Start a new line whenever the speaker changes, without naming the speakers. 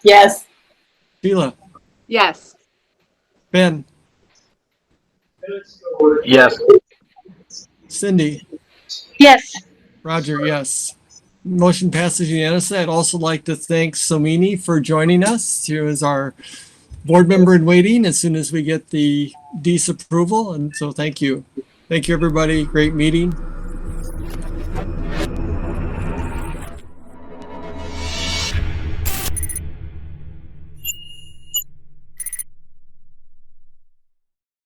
Yes.
Sheila,
Yes.
Ben,
Yes.
Cindy,
Yes.
Roger, yes. Motion passes unanimously. I'd also like to thank Somini for joining us. She was our board member in waiting as soon as we get the disapproval. And so thank you. Thank you, everybody. Great meeting.